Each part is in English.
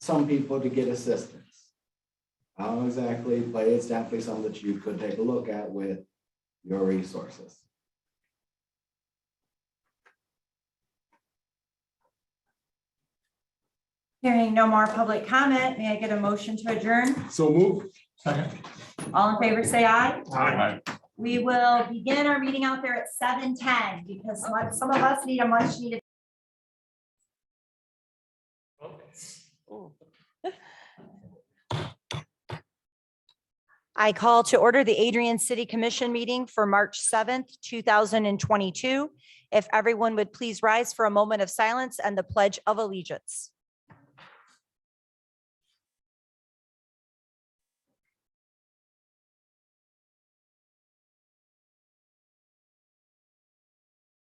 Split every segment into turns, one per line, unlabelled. some people to get assistance. I don't exactly, but it's definitely something that you could take a look at with your resources.
Hearing no more public comment, may I get a motion to adjourn?
So move. Second.
All in favor, say aye.
Aye.
We will begin our meeting out there at seven ten because some- some of us need a much needed. I call to order the Adrian City Commission meeting for March seventh, two thousand and twenty-two. If everyone would please rise for a moment of silence and the pledge of allegiance.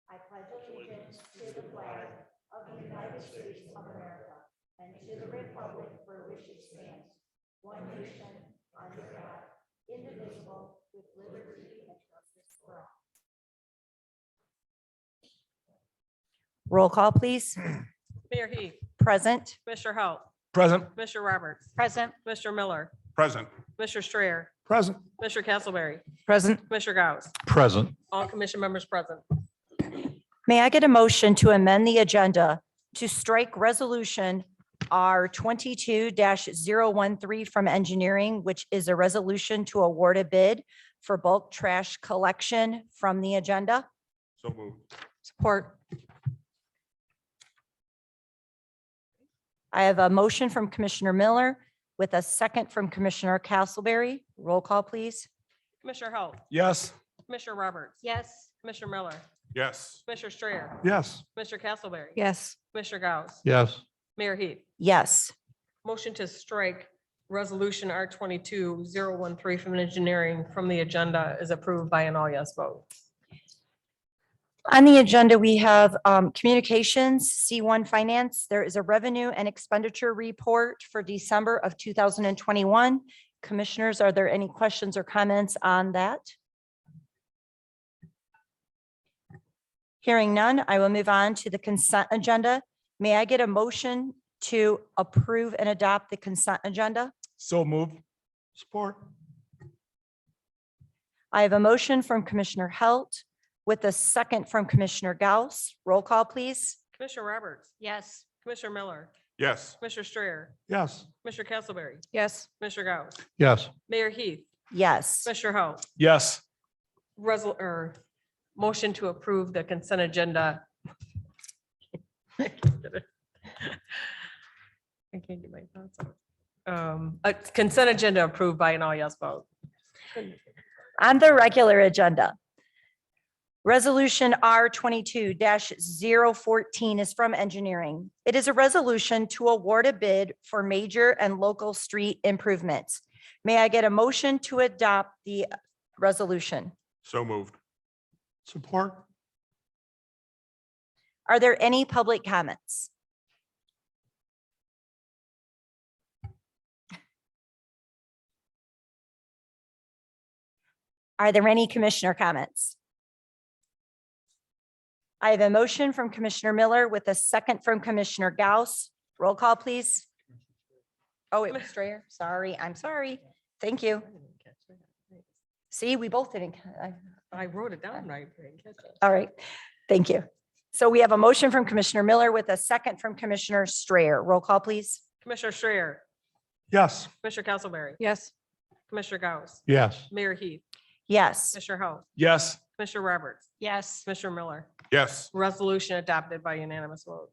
I pledge allegiance to the flag of the United States of America and to the republic for which it stands, one nation, under God, indivisible, with liberty and justice for all. Roll call, please.
Mayor Heath,
Present.
Mr. Hope,
Present.
Mr. Roberts,
Present.
Mr. Miller,
Present.
Mr. Strayer,
Present.
Mr. Castleberry,
Present.
Mr. Gauss,
Present.
all commission members present.
May I get a motion to amend the agenda to strike resolution R twenty-two 13 from engineering, which is a resolution to award a bid for bulk trash collection from the agenda?
So move.
Support. I have a motion from Commissioner Miller with a second from Commissioner Castleberry. Roll call, please.
Commissioner Hope,
Yes.
Mr. Roberts. Yes. Mr. Miller,
Yes.
Mr. Strayer,
Yes.
Mr. Castleberry.
Yes.
Mr. Gauss,
Yes.
Mayor Heath,
Yes.
motion to strike resolution R twenty-two zero one three from engineering from the agenda is approved by an all yes vote.
On the agenda, we have um, communications, C1 Finance. There is a revenue and expenditure report for December of 2021. Commissioners, are there any questions or comments on that? Hearing none, I will move on to the consent agenda. May I get a motion to approve and adopt the consent agenda?
So move. Support.
I have a motion from Commissioner Halt with a second from Commissioner Gauss. Roll call, please.
Commissioner Roberts. Yes. Commissioner Miller,
Yes.
Mr. Strayer,
Yes.
Mr. Castleberry,
Yes.
Mr. Gauss,
Yes.
Mayor Heath,
Yes.
Mr. Hope,
Yes.
resol, or motion to approve the consent agenda. I can't get my thoughts out. Um, a consent agenda approved by an all yes vote.
on the regular agenda. Resolution R twenty-two 14 is from engineering. It is a resolution to award a bid for major and local street improvements. May I get a motion to adopt the resolution?
So moved. Support.
Are there any public comments? Are there any commissioner comments? I have a motion from Commissioner Miller with a second from Commissioner Gauss. Roll call, please. Oh, it was Strayer. Sorry, I'm sorry. Thank you. See, we both didn't. I-
I wrote it down right. I didn't catch it.
all right, thank you. So we have a motion from Commissioner Miller with a second from Commissioner Strayer. Roll call, please.
Commissioner Strayer,
Yes.
Commissioner Castleberry,
Yes.
Commissioner Gauss,
Yes.
Mayor Heath,
Yes,
Commissioner Hope,
Yes.
Commissioner Roberts,
Yes.
Commissioner Miller,
Yes.
resolution adopted by unanimous vote.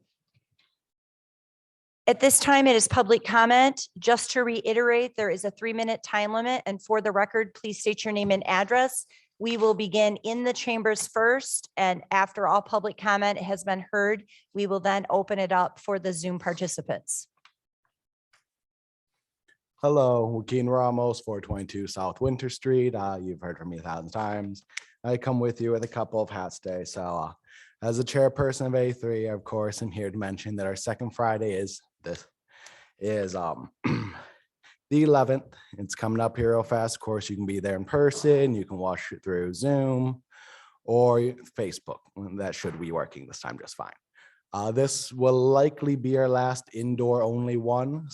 at this time, it is public comment. Just to reiterate, there is a three-minute time limit, and for the record, please state your name and address. We will begin in the chambers first, and after all public comment has been heard, we will then open it up for the Zoom participants.
Hello, Joaquin Ramos, four twenty-two South Winter Street. Uh, you've heard from me a thousand times. I come with you with a couple of hats today. So uh, as the chairperson of A3, of course, I'm here to mention that our second Friday is this is um the eleventh. It's coming up here real fast. Of course, you can be there in person. You can watch it through Zoom or Facebook. That should be working this time just fine. Uh, this will likely be our last indoor only one.